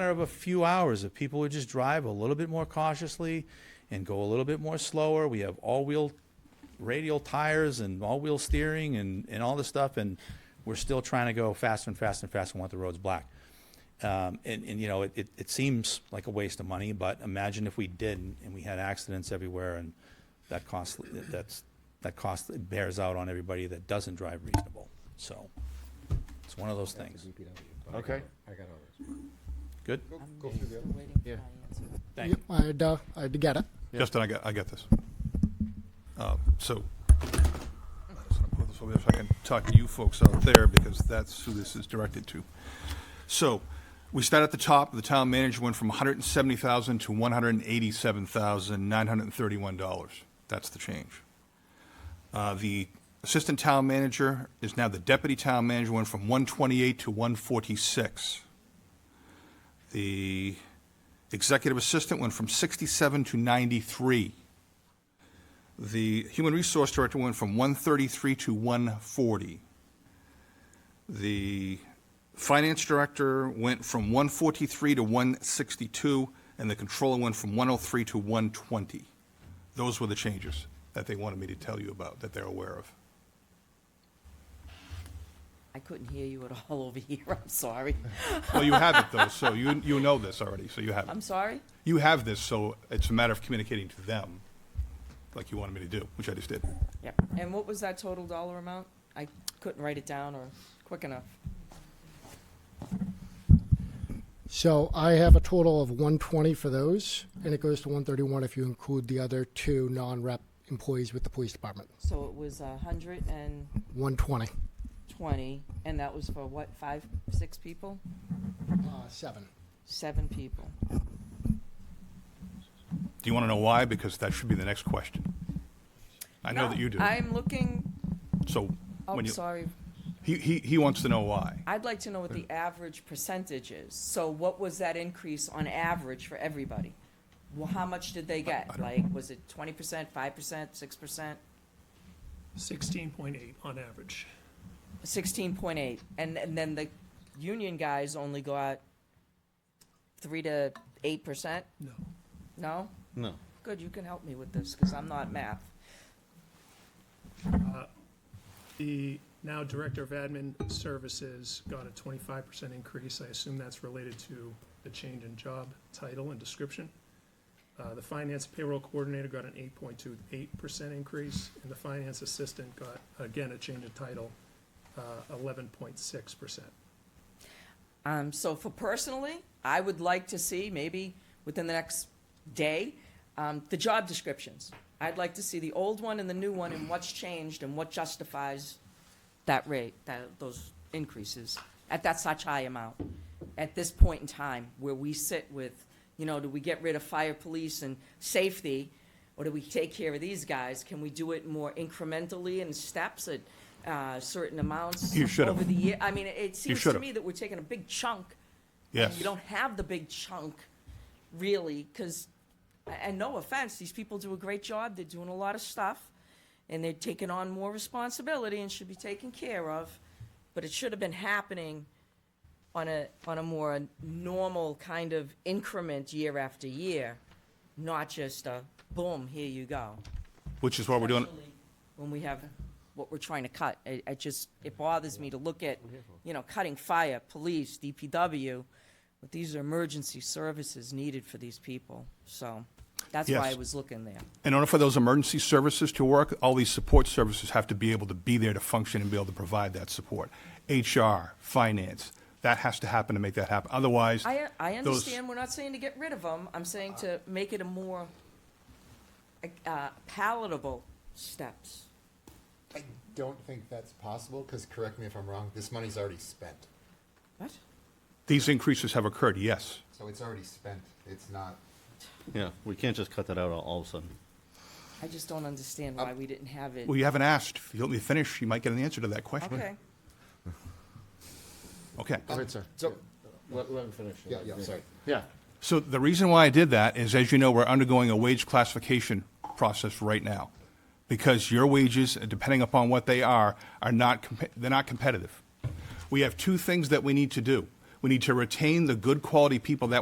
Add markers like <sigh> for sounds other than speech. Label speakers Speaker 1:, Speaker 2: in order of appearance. Speaker 1: matter of a few hours if people would just drive a little bit more cautiously and go a little bit more slower. We have all-wheel radial tires and all-wheel steering and, and all this stuff, and we're still trying to go faster and faster and faster and want the roads black. Um, and, and, you know, it, it, it seems like a waste of money, but imagine if we didn't and we had accidents everywhere and that cost, that's, that cost bears out on everybody that doesn't drive reasonable. So it's one of those things.
Speaker 2: Okay.
Speaker 3: I got all this.
Speaker 1: Good?
Speaker 3: Go through the other.
Speaker 4: waiting for
Speaker 2: Yeah.
Speaker 4: my answer.
Speaker 1: Thank you.
Speaker 5: Yep, I'd, uh, I'd get it.
Speaker 2: Yeah.
Speaker 6: Justin, I got, I got this. Uh, So, I'm just gonna put this over there so I can talk to you folks out there, because that's who this is directed to. So, we start at the top, the town manager went from hundred and seventy thousand to one hundred and eighty-seven thousand, nine hundred and thirty-one dollars. That's the change. Uh, The assistant town manager is now the deputy town manager, went from one twenty-eight to one forty-six. The executive assistant went from 67 to 93. The human resource director went from 133 to 140. The finance director went from 143 to 162, and the controller went from 103 to 120. Those were the changes that they wanted me to tell you about, that they're aware of.
Speaker 4: I couldn't hear you at <laughs> all over here, I'm sorry.
Speaker 6: Well, you have it though, so you, you know this already, so you have
Speaker 4: I'm
Speaker 6: it.
Speaker 4: sorry?
Speaker 6: You have this, so it's a matter of communicating to them, like you wanted me to do, which I just did.
Speaker 4: Yep. And what was that total dollar amount? I couldn't write it down or quick enough.
Speaker 5: So I have a total of 120 for those, and it goes to 131 if you include the other two non-rep employees with the police department.
Speaker 4: So it was a hundred and
Speaker 5: 120,
Speaker 4: twenty, and that was for what, five, six people?
Speaker 5: uh, seven.
Speaker 4: Seven people.
Speaker 6: Do you want to know why? Because that should be the next question. I know
Speaker 4: No,
Speaker 6: that you do.
Speaker 4: I'm looking,
Speaker 6: So
Speaker 4: oh,
Speaker 6: when you,
Speaker 4: sorry,
Speaker 6: he, he, he wants to know why.
Speaker 4: I'd like to know what the average percentage is. So what was that increase on average for everybody? Well, how much did they get? Like, was it twenty percent, five percent, six percent?
Speaker 7: Sixteen point eight on average.
Speaker 4: Sixteen point eight, and, and then the union guys only got three to eight percent?
Speaker 7: No.
Speaker 4: No?
Speaker 3: No.
Speaker 4: Good, you can help me with this, because I'm not math.
Speaker 7: The now Director of Admin Services got a twenty-five percent increase. I assume that's related to the change in job title and description. Uh, the Finance Payroll Coordinator got an eight point two eight percent increase, and the Finance Assistant got, again, a change in title, uh, eleven point six percent.
Speaker 4: Um, so for personally, I would like to see, maybe within the next day, um, the job descriptions. I'd like to see the old one and the new one and what's changed and what justifies that rate, that, those increases at that such high amount. At this point in time, where we sit with, you know, do we get rid of fire, police and safety? Or do we take care of these guys? Can we do it more incrementally in steps at, uh, certain amounts?
Speaker 6: You should've.
Speaker 4: Over the year, I mean, it seems to
Speaker 6: should've.
Speaker 4: me that we're taking a big chunk
Speaker 6: Yes.
Speaker 4: you don't have the big chunk, really, because, and no offense, these people do a great job, they're doing a lot of stuff, and they're taking on more responsibility and should be taken care of, but it should have been happening on a, on a more normal kind of increment year after year, not just a boom, here you go.
Speaker 6: Which is why we're doing,
Speaker 4: Especially When we have what we're trying to cut. It, it just, it bothers me to look at, you know, cutting fire, police, DPW, but these are emergency services needed for these people, so that's why I
Speaker 6: Yes.
Speaker 4: was looking there.
Speaker 6: in order for those emergency services to work, all these support services have to be able to be there to function and be able to provide that support. HR, finance, that has to happen to make that happen. Otherwise,
Speaker 4: I, I
Speaker 6: those-
Speaker 4: understand, we're not saying to get rid of them, I'm saying to make it a more uh, palatable steps.
Speaker 3: I don't think that's possible, because correct me if I'm wrong, this money's already spent.
Speaker 4: What?
Speaker 6: these increases have occurred, yes.
Speaker 3: So it's already spent. It's not,
Speaker 8: Yeah, we can't just cut that out all- all of a sudden.
Speaker 4: I just don't understand why we didn't have it.
Speaker 6: Well, you haven't asked. If you let me finish, you might get an answer to that question.
Speaker 4: Okay,
Speaker 6: Okay.
Speaker 2: All right, sir.
Speaker 3: so,
Speaker 2: Let, let him finish.
Speaker 3: yeah, yeah, I'm sorry.
Speaker 2: Yeah.
Speaker 6: So the reason why I did that is, as you know, we're undergoing a wage classification process right now. Because your wages, depending upon what they are, are not, compe- they're not competitive. We have two things that we need to do. We We need to retain the good quality people that